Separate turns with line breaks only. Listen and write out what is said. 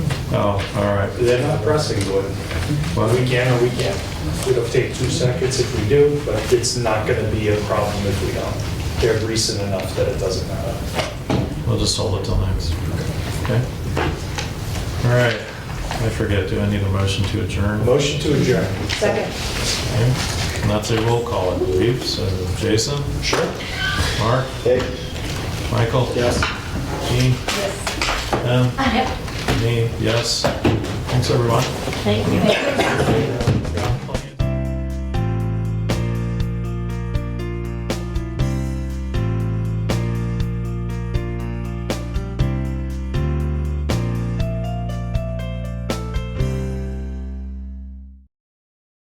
Oh, all right.
They're not pressing, Gordon. Well, we can or we can't. It'll take two seconds if we do, but it's not going to be a problem if we don't. They're recent enough that it doesn't matter.
We'll just hold it till next. Okay? All right. I forget, do I need a motion to adjourn?
Motion to adjourn.
Second.
Okay. And that's a roll call, I believe. So Jason,
Sure.
Mark, Michael? Yes. Jean?
Yes.
Em?
Yep.
Me, yes. Thanks, everyone.
Thank you.